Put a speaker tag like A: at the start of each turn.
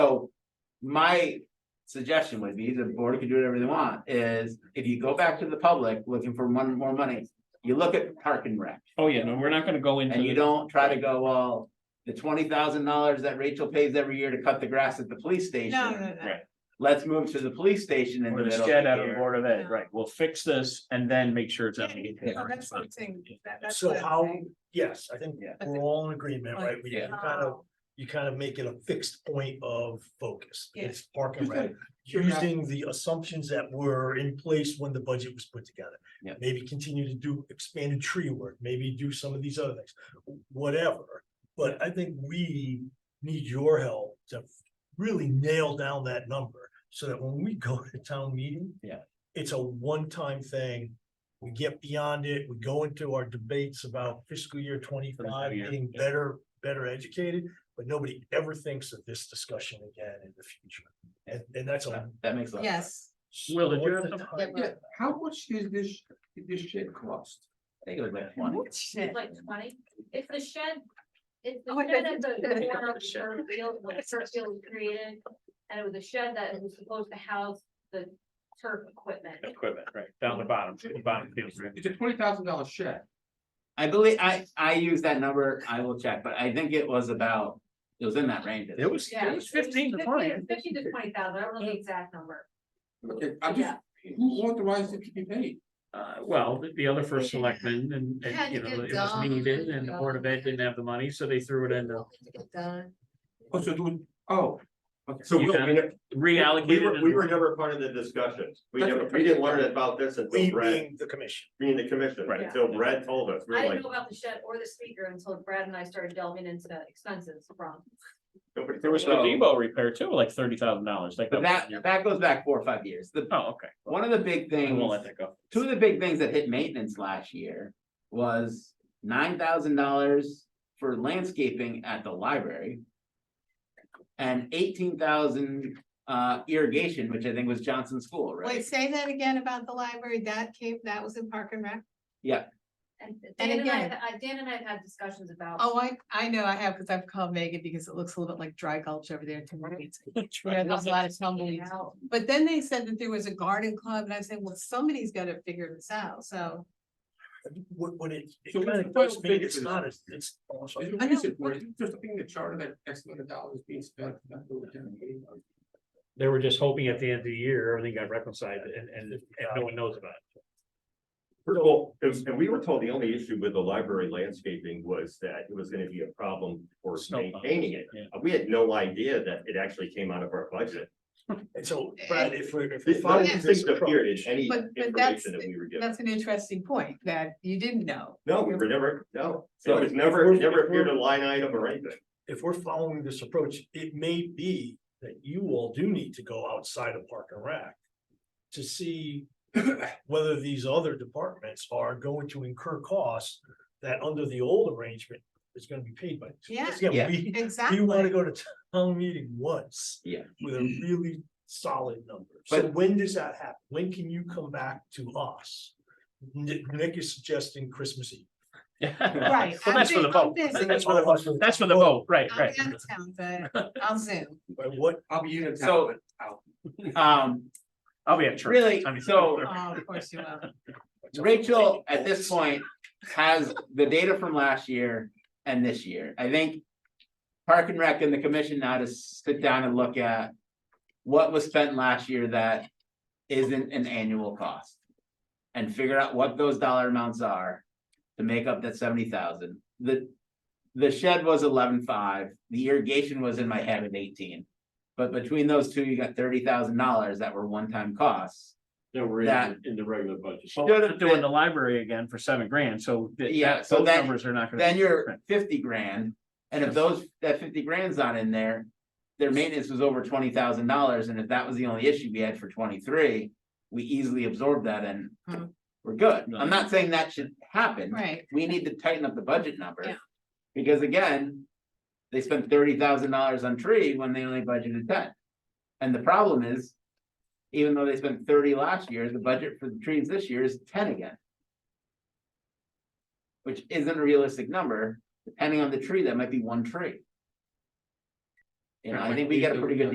A: so my suggestion would be, the board can do whatever they want, is if you go back to the public looking for one more money, you look at park and rec,
B: Oh, yeah, no, we're not gonna go into.
A: and you don't try to go, well, the twenty thousand dollars that Rachel pays every year to cut the grass at the police station.
C: No, no, no.
A: Let's move to the police station in the
B: Or the
A: middle of
B: shed out
A: the
B: of the
A: year.
B: Board of Ed, right, we'll fix this and then make sure it's. on the-
C: Yeah, no, that's what I'm saying. That- that's
D: So
C: what I'm
D: how,
C: saying.
D: yes, I think
B: Yeah.
D: we're all in agreement, right? We
B: Yeah.
D: you kind of, you kind of make it a fixed point of focus.
C: Yeah.
D: It's park and rec, using the assumptions that were in place when the budget was put together.
B: Yeah.
D: Maybe continue to do expanded tree work, maybe do some of these other things, whatever. But I think we need your help to really nail down that number so that when we go to town meeting.
B: Yeah.
D: It's a one-time thing. We get beyond it, we go into our debates about fiscal year twenty-five,
B: year,
D: being
B: yeah.
D: better, better educated. But nobody ever thinks of this discussion again in the future. And, and that's a.
A: That makes sense.
C: Yes,
B: Will, did you have
D: What's the
B: something?
D: time?
E: Yeah, how much is this, did this shed cost?
A: I think it was like twenty.
C: what shit?
F: Like twenty, it's the shed, it's
C: Oh, I
F: the shed at
C: thought you
F: the
C: said-
F: corner of the first field, when the first field was created. And it was a shed that was supposed to house the turf equipment.
B: Equipment, right, down the bottom, the bottom field.
E: It's a twenty thousand dollar shed.
A: I believe, I, I use that number, I will check, but I think it was about, it was in that range.
B: It was,
F: Yeah.
B: it was fifteen to twenty.
F: Fifteen to twenty thousand, I don't know the exact number.
E: Okay, I'm just, who authorized it to be paid?
B: Uh, well, the- the other first selectman and,
C: Had to
B: and, you know,
C: get
B: it was
C: done,
B: needed and the Board of Ed
C: done.
B: didn't have the money, so they threw it in. the-
C: Done.
E: Oh, so doing, oh. okay.
G: So
B: You
G: Will,
B: got
G: we, ne- we
B: Reallocated.
G: were,
B: and-
G: we were never part of the discussions. We
E: That's
G: never,
E: what-
G: we didn't learn about this
D: We
G: until Brad,
D: being the commission.
G: being the commission,
B: Right.
G: until Brad told us. We
F: I
G: were
F: didn't
G: like,
F: know about the shed or the speaker until Brad and I started delving into expenses from.
G: nobody.
B: There was the
A: So-
B: Debo repair too, like thirty thousand dollars, like.
A: But that,
B: that was in
A: that goes back four or five years. The,
B: your- Oh, okay.
A: one of the big
B: I
A: things.
B: won't let that go.
A: two of the big things that hit maintenance last year was nine thousand dollars for landscaping at the library. And eighteen thousand uh irrigation, which I think was Johnson School,
C: Wait,
A: right?
C: say that again about the library. That came, that was in Park and Rec.
F: And Dan and
C: again-
F: I, I- Dan and I have had discussions about.
H: Oh, I, I know, I have, because I've called Megan because it looks a little bit like dry gulch over there to me. Yeah, there's a lot of tumbleweeds.
F: how-
H: But then they said that there was a garden club and I said, well, somebody's gotta figure this out, so.
D: What, what it, it
E: So
D: kind
E: it's
D: of does
E: quite
D: mean
E: big
D: it's
E: for
D: not,
E: this.
D: as- it's. oh, I'm
E: Is
D: sorry.
E: there a reason for it? Just being the charter that X amount of dollars being spent. for that little town meeting?
B: They were just hoping at the end of the year, everything got reconciled and, and, and no one knows about it.
G: First of all, it was- and we were told the only issue with the library landscaping was that it was gonna be a problem for
B: Snowplow.
G: maintaining it.
B: Yeah.
G: We had no idea that it actually came out of our budget.
D: And so, Brad, if we're. if we're
G: This- None
D: following
G: of these
D: this
G: things appeared in
D: approach-
G: any
H: But- but
G: information
H: that's-
G: that we were given.
H: That's an interesting point that you didn't know.
G: No, we were never, no, it
D: So if
G: was never,
D: we're-
G: it never
D: if we're-
G: appeared a line item or anything.
D: If we're following this approach, it may be that you all do need to go outside of Park and Rec. To see whether these other departments are going to incur costs that under the old arrangement is gonna be paid by.
H: Yeah.
A: Yeah.
D: we-
H: Exactly.
D: You wanna go to town meeting once.
A: Yeah.
D: With a really solid number. So
A: But-
D: when does that happen? When can you come back to us? Nick, Nick is suggesting Christmas Eve.
B: Right.
H: Right,
B: Well, that's for the
H: I'm um,
B: vote,
H: busy.
B: that's for the vote, that's for the vote, right,
H: I'm
B: right.
H: out of town, but I'll zoom.
D: By what,
E: I'll be in.
A: So- Um,
B: I'll be at church.
A: Really?
B: I mean-
A: So-
H: Oh, of course you will.
A: Rachel, at this point, has the data from last year and this year, I think. Park and Rec and the commission now to sit down and look at what was spent last year that isn't an annual cost. And figure out what those dollar amounts are to make up that seventy thousand, the. The shed was eleven-five, the irrigation was in my head at eighteen. But between those two, you got thirty thousand dollars that were one-time costs.
G: No, we're
A: in the-
G: the regular budget.
B: Well,
A: Should've
B: we're not doing
A: been-
B: the library again for seven grand, so. th-
A: Yeah,
B: that-
A: so
B: Those
A: then-
B: numbers are not gonna.
A: then you're
B: Right.
A: fifty grand, and if those, that fifty grand's not in there. Their maintenance was over twenty thousand dollars, and if that was the only issue we had for twenty-three, we easily absorbed that and.
H: Hmm.
A: We're good,
B: No.
A: I'm not saying that should happen,
H: Right,
A: we need to tighten up the budget number.
H: Yeah.
A: Because again, they spent thirty thousand dollars on tree when they only budgeted ten. And the problem is, even though they spent thirty last year, the budget for the trees this year is ten again. Which isn't a realistic number, depending on the tree, that might be one tree. You know, I think we got a pretty good